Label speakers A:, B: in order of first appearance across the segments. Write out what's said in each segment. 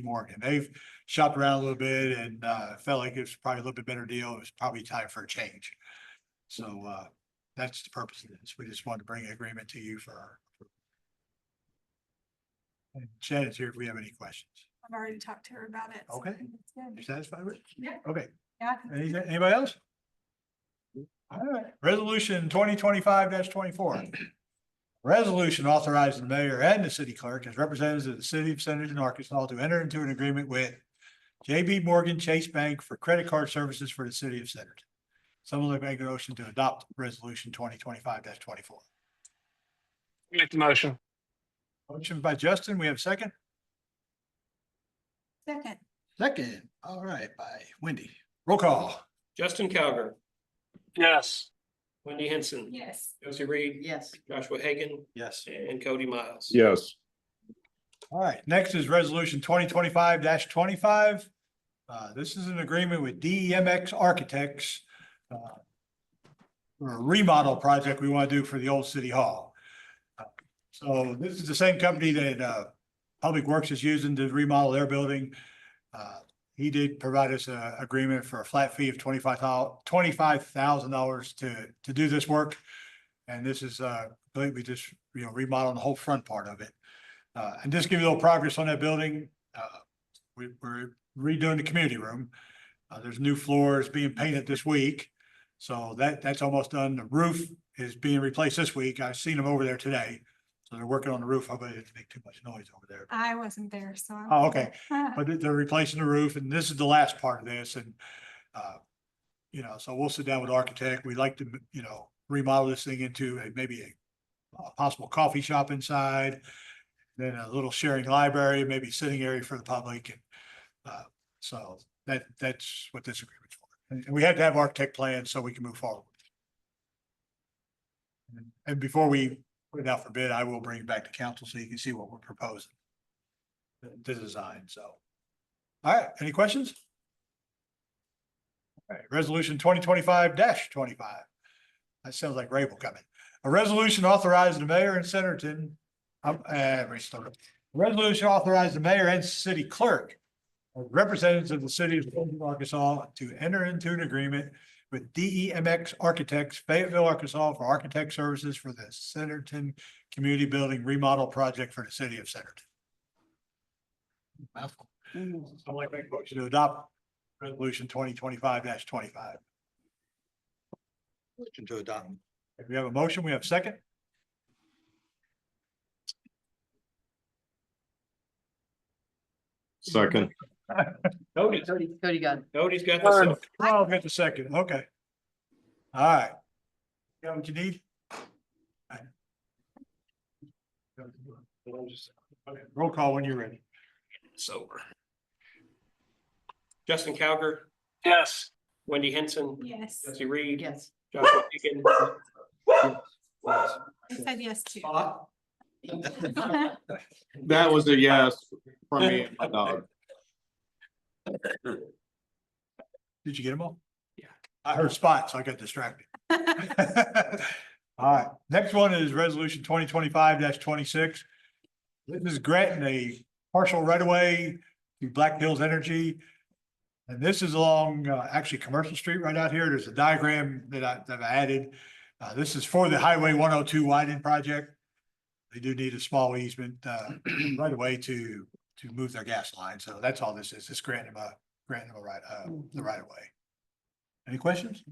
A: Morgan. They've shopped around a little bit and uh felt like it was probably a little bit better deal. It was probably time for a change. So uh that's the purpose of this. We just wanted to bring agreement to you for our. And Shannon's here if we have any questions.
B: I've already talked to her about it. so I
A: Okay.
B: think it's
A: You
B: good.
A: satisfied with? it?
B: Yeah.
A: Okay,
B: Yeah, I think
A: Any- anybody else? All right, resolution twenty twenty-five twenty-four. Resolution authorizing the mayor and the city clerk as representatives of the city of Centerton, Arkansas to enter into an agreement with JB Morgan Chase Bank for credit card services for the city of Centerton. Someone like make a motion to adopt resolution twenty twenty-five twenty-four.
C: Make the motion.
A: Motion by Justin, we have a second?
B: second,
A: Second, all right, by Wendy. Roll call.
D: Justin Calgar,
C: Yes.
D: Wendy Henson,
B: yes,
D: Josie Reed,
E: Yes,
D: Joshua Hagan,
A: Yes.
D: and Cody Miles.
F: Yes,
A: All right, next is resolution twenty twenty-five twenty-five. Uh, this is an agreement with DEMX Architects. uh, For a remodel project we want to do for the old city hall. Uh, So this is the same company that, uh, Public Works is using to remodel their building. Uh, he did provide us a agreement for a flat fee of twenty-five dollars to, to do this work. And this is, uh, completely just, you know, remodeling the whole front part of it. Uh, and just give you a little progress on that building, uh, we, we're redoing the community room. Uh, there's new floors being painted this week, so that, that's almost done. The roof is being replaced this week. I've seen them over there today. So they're working on the roof. I bet it didn't make too much noise over there.
B: I wasn't there, so. I'm-
A: Oh, okay. But they- they're replacing the roof and this is the last part of this and, uh, you know, so we'll sit down with architect. We'd like to, you know, remodel this thing into a, maybe a, a possible coffee shop inside. Then a little sharing library, maybe sitting area for the public and, uh, so that, that's what this agreement's for. And and we had to have architect plans so we can move forward. And- And before we put it out for bid, I will bring it back to council so you can see what we're proposing the the design, so. All right, any questions? All right, resolution twenty twenty-five twenty-five. That sounds like Rabel coming. A resolution authorizing the mayor and Centerton. Um, uh, restart. it. Resolution authorizing the mayor and city clerk. as Representatives of the city of Fulton, Arkansas to enter into an agreement with DEMX Architects Fayetteville, Arkansas for architect services for the Centerton Community Building Remodel Project for the city of Centerton. Mouthful. I'd like to make a motion to adopt resolution twenty twenty-five twenty-five. Motion to adopt. If we have a motion, we have a second.
F: second,
D: Cody,
E: Cody, Cody got it.
D: Cody's got the second.
A: Oh, I'll get the second, okay. All right. Got what you need? All right. Okay, Roll call when you're ready.
D: It's over. Justin Calgar,
C: Yes.
D: Wendy Henson,
B: yes,
D: Josie Reed,
E: Yes.
D: Joshua Hagan.
B: I said yes to.
F: that was a yes for me and my dog.
A: Did you get them all?
D: Yeah.
A: I heard spots, so I got distracted. All right, next one is resolution twenty twenty-five twenty-six. This is granting a partial right of way to Black Hills Energy. And this is along, uh, actually Commercial Street right out here. There's a diagram that I, that I added. Uh, this is for the Highway one oh two widening project. They do need a small easement, uh, right of way to, to move their gas line. So that's all this is, just granting them a, granting them a right, uh, the right of way. Any questions?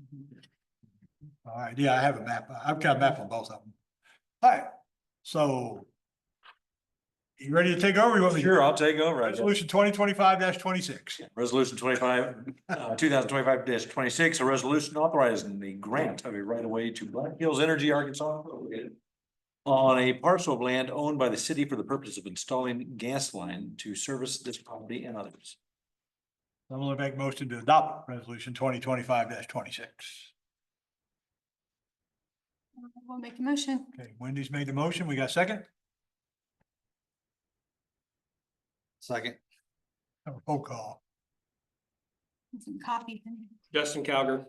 A: All right, yeah, I have a map. uh, I've got a map on both of them. All right, so. You ready to take over? You want me to-
G: Sure, I'll take over. I guess.
A: Resolution twenty twenty-five twenty-six.
G: Resolution twenty-five, uh, two thousand twenty-five twenty-six, a resolution authorizing the grant of a right-of-way to Black Hills Energy Arkansas on a parcel of land owned by the city for the purpose of installing gas line to service this property and others.
A: I'm gonna make motion to adopt resolution twenty twenty-five twenty-six.
B: We'll make a motion.
A: Okay, Wendy's made the motion. We got a second?
G: Second.
A: Have a Roll call.
B: Some coffee.
D: Justin Calgar,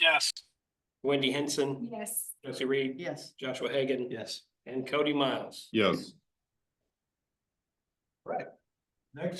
C: Yes.
D: Wendy Henson,
B: Yes,
D: Josie Reed,
E: Yes,
D: Joshua Hagan,
G: Yes.
D: and Cody Miles.
F: Yes,
A: Next